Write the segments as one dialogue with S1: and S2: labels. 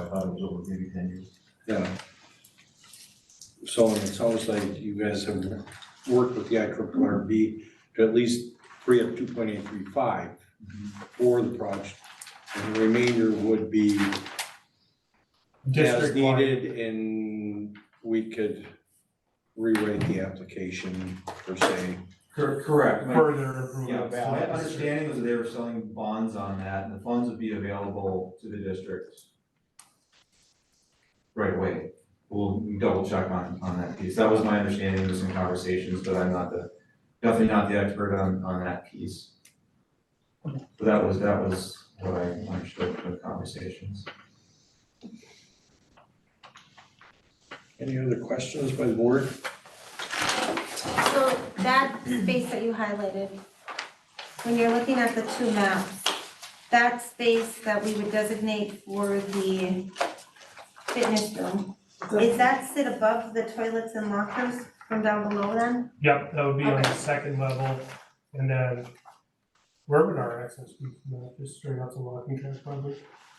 S1: thought it was over maybe ten years.
S2: Yeah. So it sounds like you guys have worked with the I to at least free up two point eight three five for the project. And the remainder would be as
S1: District-wide.
S2: needed and we could rewrite the application per se.
S3: Cor- Correct. My-
S1: Further improve
S3: Yeah,
S1: the
S3: so my
S1: balance.
S3: understanding was that they were selling bonds on that, and the funds would be available to the district right away. We'll double check on, on that piece. That was my understanding, was in conversations, but I'm not the, definitely not the expert on, on that piece. But that was, that was what I understood from the conversations.
S2: Any other questions by the board?
S4: So that space that you highlighted, when you're looking at the two maps, that space that we would designate for the fitness room, is that sit above the toilets and lockers from down below then?
S5: Yep, that would be on the
S4: Okay.
S5: second level, and then where would our access be from that, uh, just straight out to locking track probably?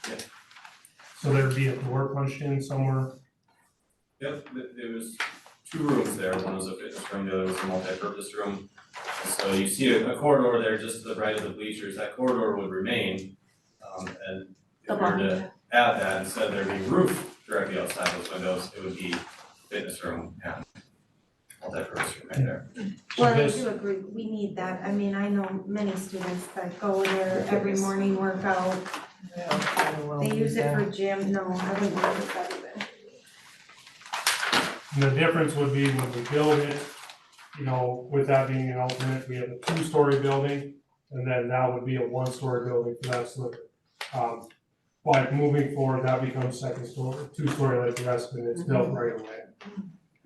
S3: Yeah.
S5: So there'd be a door punched in somewhere,
S6: Yep, th- there was two rooms there, one was a fitness room, the other was a multipurpose room. So you see a a corridor there just to the right of the bleachers, that corridor would remain. Um, and if we were to add that, instead there'd be roof directly outside those windows, it would be fitness room and multipurpose room right there.
S5: so
S4: Well, I
S5: this,
S4: do agree, we need that, I mean, I know many students that go there every morning workout,
S7: Oh,
S4: they use it for gym, no, I wouldn't use it that even.
S5: and the difference would be when we build it, you know, with that being an alternate, we have a two-story building, and then that would be a one-story building, for that's the, um, like moving forward, that becomes second story, two-story like the rest of it, it's built right away.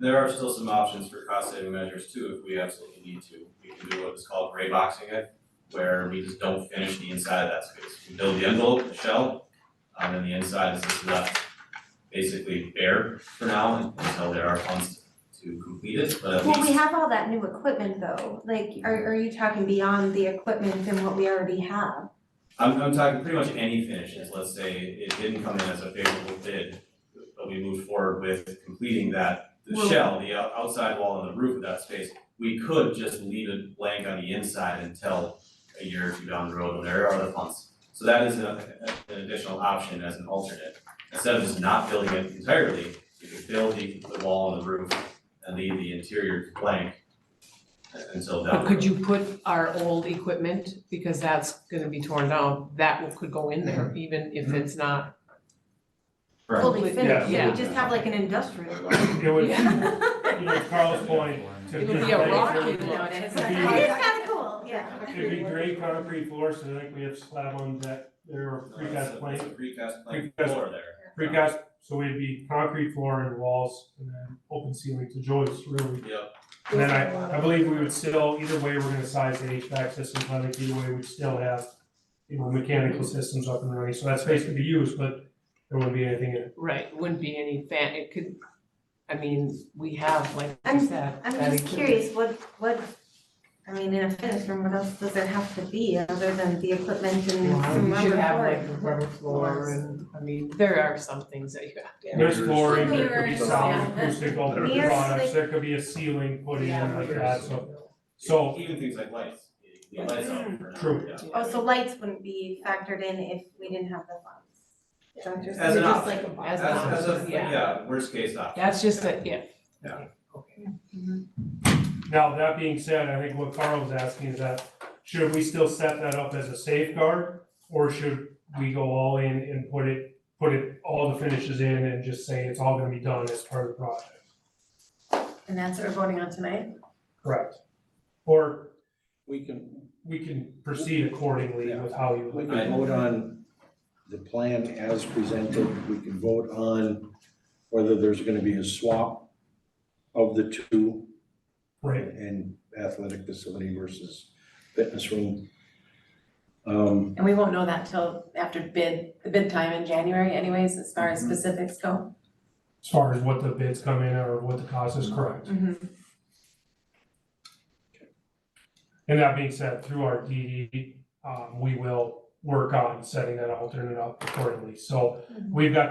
S6: There are still some options for cost saving measures too, if we absolutely need to. We can do what is called gray boxing it, where we just don't finish the inside of that space. We build the envelope, the shell, um, and the inside is just left basically bare for now until there are funds to complete it, but at least.
S4: Well, we have all that new equipment though, like, are, are you talking beyond the equipment and what we already have?
S6: I'm, I'm talking pretty much any finishes, let's say it didn't come in as a favorable bid, but we moved forward with completing that, the
S4: Well-
S6: shell, the out- outside wall and the roof of that space. We could just leave it blank on the inside until a year or two down the road when there are other funds. So that is a- an additional option as an alternate. Instead of just not building it entirely, you could build the, the wall and the roof and leave the interior blank until down the
S7: But
S6: road.
S7: could you put our old equipment, because that's gonna be torn down, that will- could go in there, even if it's not.
S6: Right.
S4: Fully finished,
S7: Yeah.
S4: we just have like an industrial one.
S5: It would, you
S7: Yeah.
S5: know, Carl's point, to
S7: It would be
S5: just
S7: a
S5: make
S7: rock
S5: sure we
S7: in
S5: look-
S7: there,
S5: It'd
S7: it's
S5: be
S7: like-
S5: like-
S4: It's kinda cool, yeah.
S5: It'd be great concrete floor, so I think we have slab on that, there or
S6: No,
S5: precast
S6: that's a, that's a
S5: plank,
S6: precast plank
S5: Precast-
S6: floor there.
S5: precast, so we would be concrete floor and walls and then open ceiling to joists really.
S6: Yep.
S5: And then I, I believe we would still, either way, we're gonna size the HVAC system, I think either way, we'd still have, you know, mechanical systems up and running, so that space could be used, but there wouldn't be anything in it.
S7: Right, wouldn't be any fan, it could, I mean, we have, like you
S4: I'm-
S7: said.
S4: I'm
S7: that
S4: just
S7: equipment.
S4: curious, what, what, I mean, in a fitness room, what else does it have to be other than the equipment and some
S7: We should
S4: rubber
S7: have
S4: flooring?
S7: like a rubber floor and, I mean, there are some things that you have to have.
S5: There's flooring, there could be
S8: Mirrors,
S5: solid
S8: yeah.
S5: acoustic alternative
S4: Mirrors,
S5: products,
S4: like-
S5: there could be a ceiling putting in like that, so.
S6: So
S5: So-
S6: even things like lights, you need lights
S7: Mm.
S6: on for now,
S5: True.
S6: yeah.
S4: Oh, so lights wouldn't be factored in if we didn't have the funds? Is that what you're
S6: As
S4: saying?
S6: an
S4: Just
S6: option.
S4: like a box.
S7: As an
S6: As, as a,
S7: option, yeah.
S6: yeah, worst case option.
S7: That's just a, yeah.
S6: Yeah.
S7: Okay.
S5: Now, that being said, I think what Carl was asking is that, should we still set that up as a safeguard? Or should we go all in and put it, put it, all the finishes in and just say it's all gonna be done as part of the project?
S8: And that's what we're voting on tonight?
S5: Correct. Or
S2: We can,
S5: we can proceed accordingly with how you.
S2: We can vote on the plan as presented, we can vote on whether there's gonna be a swap of the two
S5: Right,
S2: and athletic facility versus fitness room. Um,
S8: And we won't know that till after bid, the bid time in January anyways, as far
S7: Mm-hmm.
S8: as specifics go.
S5: as far as what the bids come in or what the cost is, correct.
S6: Mm-hmm.
S5: And that being said, through our DD, um, we will work on setting that alternate up accordingly. So we've got